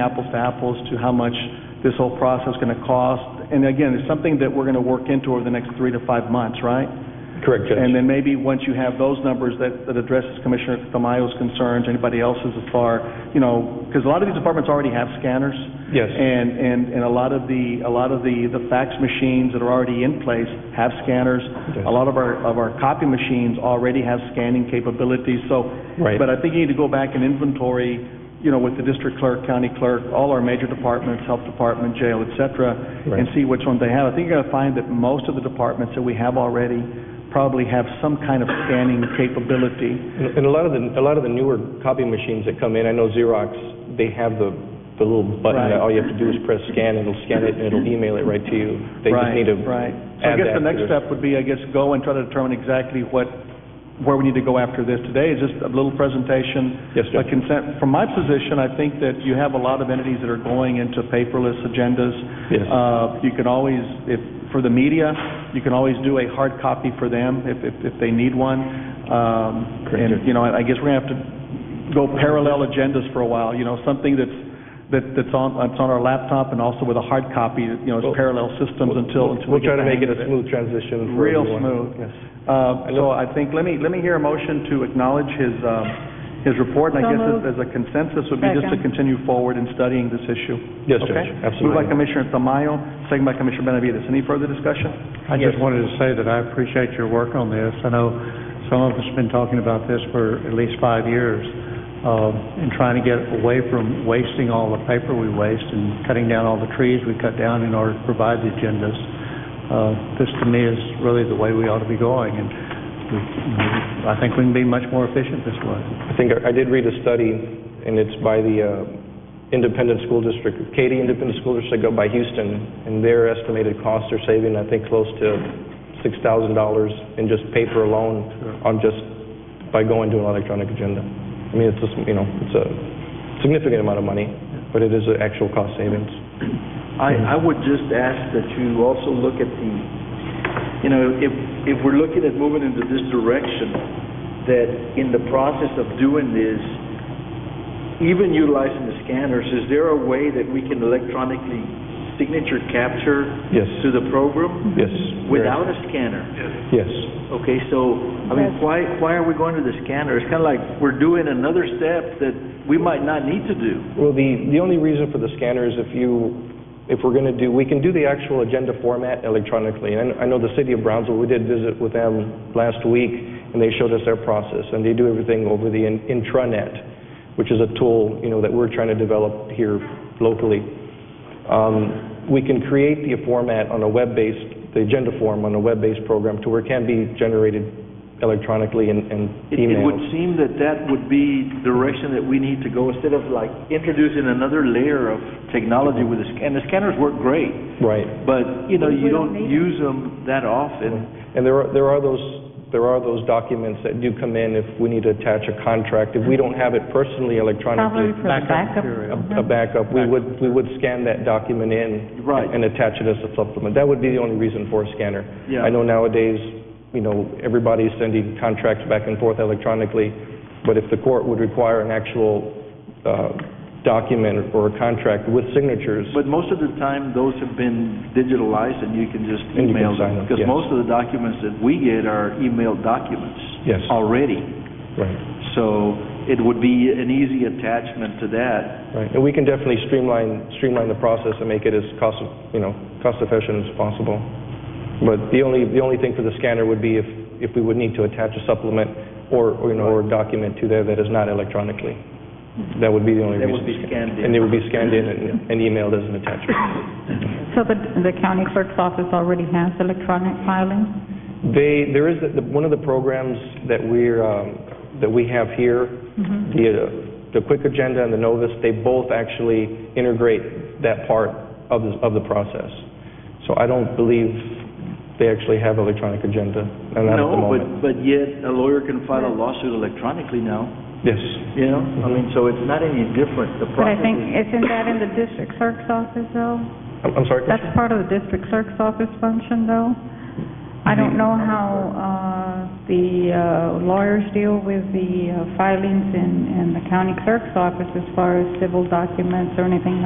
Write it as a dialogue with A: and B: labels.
A: apples to apples to how much this whole process is going to cost. And again, it's something that we're going to work into over the next three to five months, right? And
B: Correct, Judge.
A: then maybe once you have those numbers that, that addresses Commissioner Tamayo's concerns, anybody else's as far, you know, because a lot of these departments already have scanners.
B: Yes.
A: And, and, and a lot of the, a lot of the, the fax machines that are already in place have scanners. A
B: Yes.
A: lot of our, of our copy machines already have scanning capabilities, so.
B: Right.
A: But I think you need to go back and inventory, you know, with the district clerk, county clerk, all our major departments, health department, jail, et cetera, and
B: Right.
A: see which ones they have. I think you're going to find that most of the departments that we have already probably have some kind of scanning capability.
B: And and a lot of the, a lot of the newer copy machines that come in, I know Xerox, they have the, the little button
A: Right.
B: that all you have to do is press scan, and it'll scan it, and it'll email it right to you. They just need to
A: Right, right. So I
B: add
A: guess
B: that
A: the
B: to
A: next
B: their-
A: step would be, I guess, go and try to determine exactly what, where we need to go after this. Today is just a little presentation.
B: Yes,
A: A
B: Judge.
A: consent, from my position, I think that you have a lot of entities that are going into paperless agendas.
B: Yes.
A: Uh, You can always, if, for the media, you can always do a hard copy for them if, if, if they need one. Um,
B: Correct,
A: And,
B: Judge.
A: you know, I I guess we're going to have to go parallel agendas for a while, you know, something that's, that- that's on, that's on our laptop and also with a hard copy, you know, it's
B: Well,
A: parallel systems until, until we
B: We'll
A: get
B: try to
A: the
B: make
A: hang of
B: it a smooth transition for
A: Real
B: everyone.
A: smooth.
B: Yes.
A: Uh, So I think, let me, let me hear a motion to acknowledge his, um, his report, and I
C: So
A: guess
C: moved.
A: as- as a consensus would be just to
C: Second.
A: continue forward in studying this issue.
B: Yes, Judge,
A: Okay? Moved by
B: absolutely.
A: Commissioner Tamayo, second by Commissioner Benavides. Any further discussion?
D: I just wanted to say that I appreciate your work on this. I know some of us have been talking about this for at least five years, um, and trying to get away from wasting all the paper we waste and cutting down all the trees we cut down in order to provide the agendas. Uh, This, to me, is really the way we ought to be going, and we- I think we can be much more efficient this way.
B: I think I I did read a study, and it's by the uh, Independent School District, Katy Independent School District up by Houston, and their estimated costs are saving, I think, close to $6,000 in just paper alone on just, by going to an electronic agenda. I mean, it's just, you know, it's a significant amount of money, but it is an actual cost savings.
E: I, I would just ask that you also look at the, you know, if, if we're looking at moving into this direction, that in the process of doing this, even utilizing the scanners, is there a way that we can electronically signature capture
B: Yes.
E: to the program
B: Yes.
E: without a scanner?
B: Yes.
E: Okay, so, I mean,
C: Yes.
E: why, why are we going to the scanner? It's kind of like we're doing another step that we might not need to do.
B: Well, the, the only reason for the scanner is if you, if we're going to do, we can do the actual agenda format electronically. And I know the city of Brownsville, we did visit with them last week, and they showed us their process, and they do everything over the in- intranet, which is a tool, you know, that we're trying to develop here locally. Um, we can create the format on a web-based, the agenda form on a web-based program to where it can be generated electronically and, and
E: It- It
B: emailed.
E: would seem that that would be direction that we need to go, instead of like introducing another layer of technology with the scan, and the scanners work great,
B: Right.
E: but, you know,
C: We
E: you
C: don't
E: don't
C: need
E: use them that often.
B: And there are, there are those, there are those documents that do come in if we need to attach a contract. If we don't have it personally
C: Probably
B: electronically,
C: for the
D: Backup
C: backup.
D: material.
B: a a backup, we would, we would scan that document in.
E: Right.
B: And attach it as a supplement. That would be the only reason for a scanner.
E: Yeah.
B: I know nowadays, you know, everybody's sending contracts back and forth electronically, but if the court would require an actual, uh, document or a contract with signatures,
E: But most of the time, those have been digitalized and you can just
B: And you can
E: email
B: sign
E: them.
B: them,
E: Because
B: yes.
E: most of the documents that we get are emailed documents.
B: Yes.
E: Already.
B: right.
E: So it would be an easy attachment to that.
B: Right, and we can definitely streamline, streamline the process and make it as cost, you know, cost-efficient as possible. But the only, the only thing for the scanner would be if, if we would need to attach a supplement or, or, you know, or a document to there that is not electronically. That would be the only
E: That
B: reason.
E: would be scanned in.
B: And it would be scanned in and and emailed as an attachment.
C: So the, the county clerk's office already has electronic filing?
B: They, there is, the- one of the programs that we're, um, that we have here, the, uh, the Quick Agenda and the Novus, they both actually integrate that part of, the- of the process. So I don't believe they actually have electronic agenda, and not at the
E: No, but,
B: moment.
E: but yet a lawyer can file a lawsuit electronically now,
B: Yes,
E: you know? I mean, so it's not any different. The
C: But I
E: process is...
C: think, isn't that in the district clerk's office though?
B: I'm I'm sorry,
C: That's
B: Commissioner?
C: part of the district clerk's office function though? I don't know how, uh, the uh, lawyers deal with the uh, filings in, in the county clerk's office as far as civil documents or anything